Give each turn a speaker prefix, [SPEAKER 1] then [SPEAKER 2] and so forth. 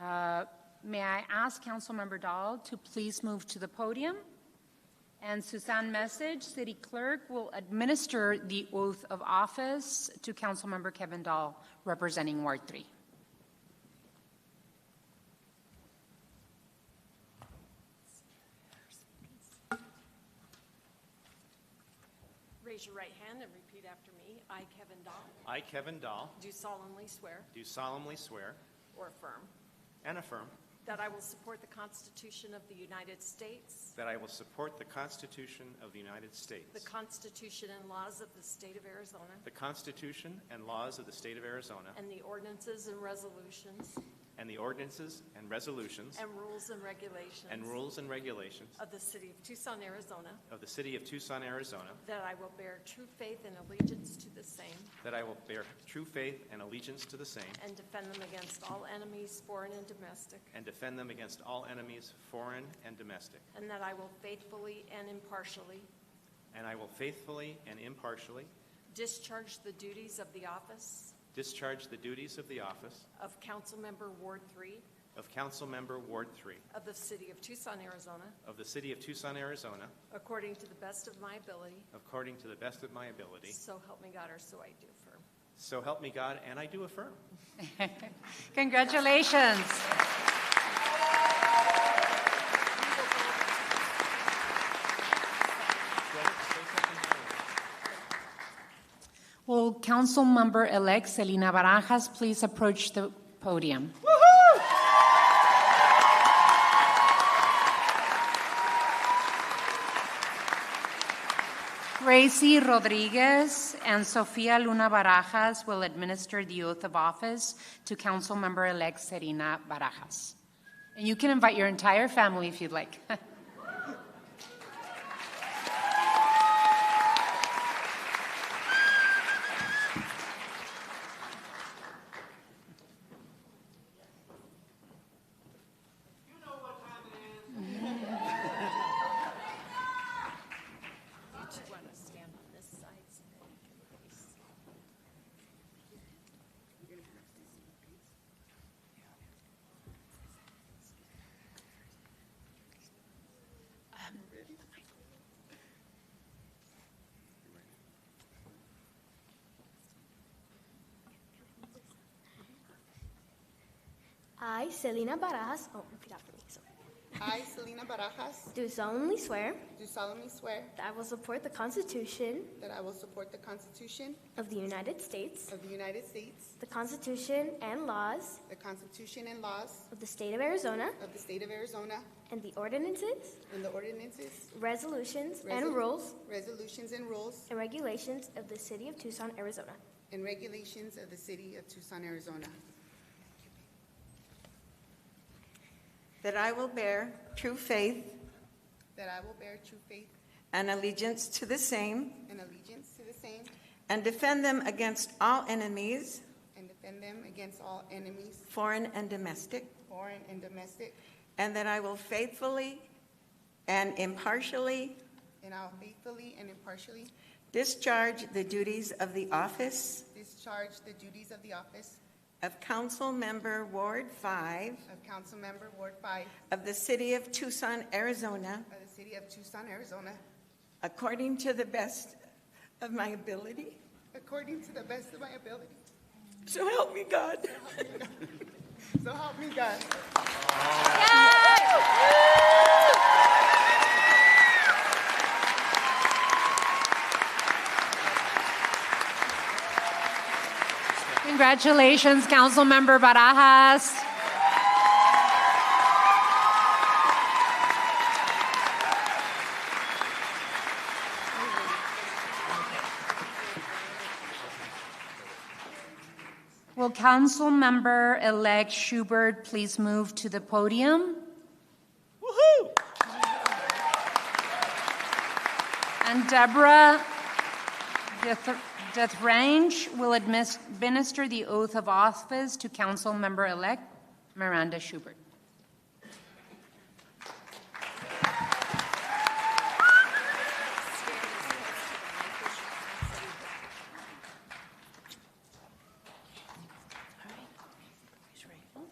[SPEAKER 1] Uh, May I ask Councilmember Dahl to please move to the podium? And Suzanne Message, City Clerk, will administer the oath of office to Councilmember Kevin Dahl, representing Ward 3.
[SPEAKER 2] Raise your right hand and repeat after me. I, Kevin Dahl,
[SPEAKER 3] I, Kevin Dahl,
[SPEAKER 2] do solemnly swear
[SPEAKER 3] do solemnly swear
[SPEAKER 2] or affirm
[SPEAKER 3] and affirm
[SPEAKER 2] that I will support the Constitution of the United States,
[SPEAKER 3] that I will support the Constitution of the United States,
[SPEAKER 2] the Constitution and laws of the State of Arizona,
[SPEAKER 3] the Constitution and laws of the State of Arizona,
[SPEAKER 2] and the ordinances and resolutions
[SPEAKER 3] and the ordinances and resolutions
[SPEAKER 2] and rules and regulations
[SPEAKER 3] and rules and regulations
[SPEAKER 2] of the City of Tucson, Arizona,
[SPEAKER 3] of the City of Tucson, Arizona,
[SPEAKER 2] that I will bear true faith and allegiance to the same
[SPEAKER 3] that I will bear true faith and allegiance to the same
[SPEAKER 2] and defend them against all enemies, foreign and domestic,
[SPEAKER 3] and defend them against all enemies, foreign and domestic,
[SPEAKER 2] and that I will faithfully and impartially
[SPEAKER 3] and I will faithfully and impartially
[SPEAKER 2] discharge the duties of the office
[SPEAKER 3] discharge the duties of the office
[SPEAKER 2] of Councilmember Ward 3
[SPEAKER 3] of Council Member Ward 3
[SPEAKER 2] of the City of Tucson, Arizona,
[SPEAKER 3] of the City of Tucson, Arizona,
[SPEAKER 2] according to the best of my ability,
[SPEAKER 3] according to the best of my ability,
[SPEAKER 2] so help me God, or so I do affirm.
[SPEAKER 3] So help me God, and I do affirm.
[SPEAKER 1] Congratulations. Will Councilmember-elect Selena Barajas please approach the podium? Gracie Rodriguez and Sofia Luna Barajas will administer the oath of office to Councilmember-elect Serena Barajas. And you can invite your entire family if you'd like.
[SPEAKER 2] Did you want to stand on this side so that you can face?
[SPEAKER 4] I, Selena Barajas, oh, repeat after me. sorry.
[SPEAKER 5] I, Selena Barajas,
[SPEAKER 4] Do solemnly swear
[SPEAKER 5] do solemnly swear
[SPEAKER 4] that I will support the Constitution
[SPEAKER 5] that I will support the Constitution
[SPEAKER 4] of the United States,
[SPEAKER 5] of the United States,
[SPEAKER 4] the Constitution and laws
[SPEAKER 5] the Constitution and laws
[SPEAKER 4] of the State of Arizona,
[SPEAKER 5] of the State of Arizona,
[SPEAKER 4] and the ordinances,
[SPEAKER 5] and the ordinances,
[SPEAKER 4] resolutions, and
[SPEAKER 5] resol-
[SPEAKER 4] rules
[SPEAKER 5] resolutions and rules,
[SPEAKER 4] and regulations of the City of Tucson, Arizona.
[SPEAKER 5] and regulations of the City of Tucson, Arizona.
[SPEAKER 6] That I will bear true faith
[SPEAKER 5] That I will bear true faith
[SPEAKER 6] and allegiance to the same
[SPEAKER 5] and allegiance to the same
[SPEAKER 6] and defend them against all enemies,
[SPEAKER 5] and defend them against all enemies,
[SPEAKER 6] foreign and domestic,
[SPEAKER 5] foreign and domestic,
[SPEAKER 6] and that I will faithfully and impartially
[SPEAKER 5] and I'll faithfully and impartially
[SPEAKER 6] discharge the duties of the office
[SPEAKER 5] discharge the duties of the office
[SPEAKER 6] of Council Member Ward 5
[SPEAKER 5] of Councilmember Ward Five
[SPEAKER 6] of the City of Tucson, Arizona,
[SPEAKER 5] of the City of Tucson, Arizona,
[SPEAKER 6] according to the best of my ability.
[SPEAKER 5] according to the best of my ability.
[SPEAKER 6] So help me God.
[SPEAKER 5] So help me God.
[SPEAKER 1] Congratulations, Councilmember Barajas. Will Councilmember-elect Schubert please move to the podium? And Deborah Deth- Dethrange will admis- administer the oath of office to Councilmember-elect Miranda Schubert.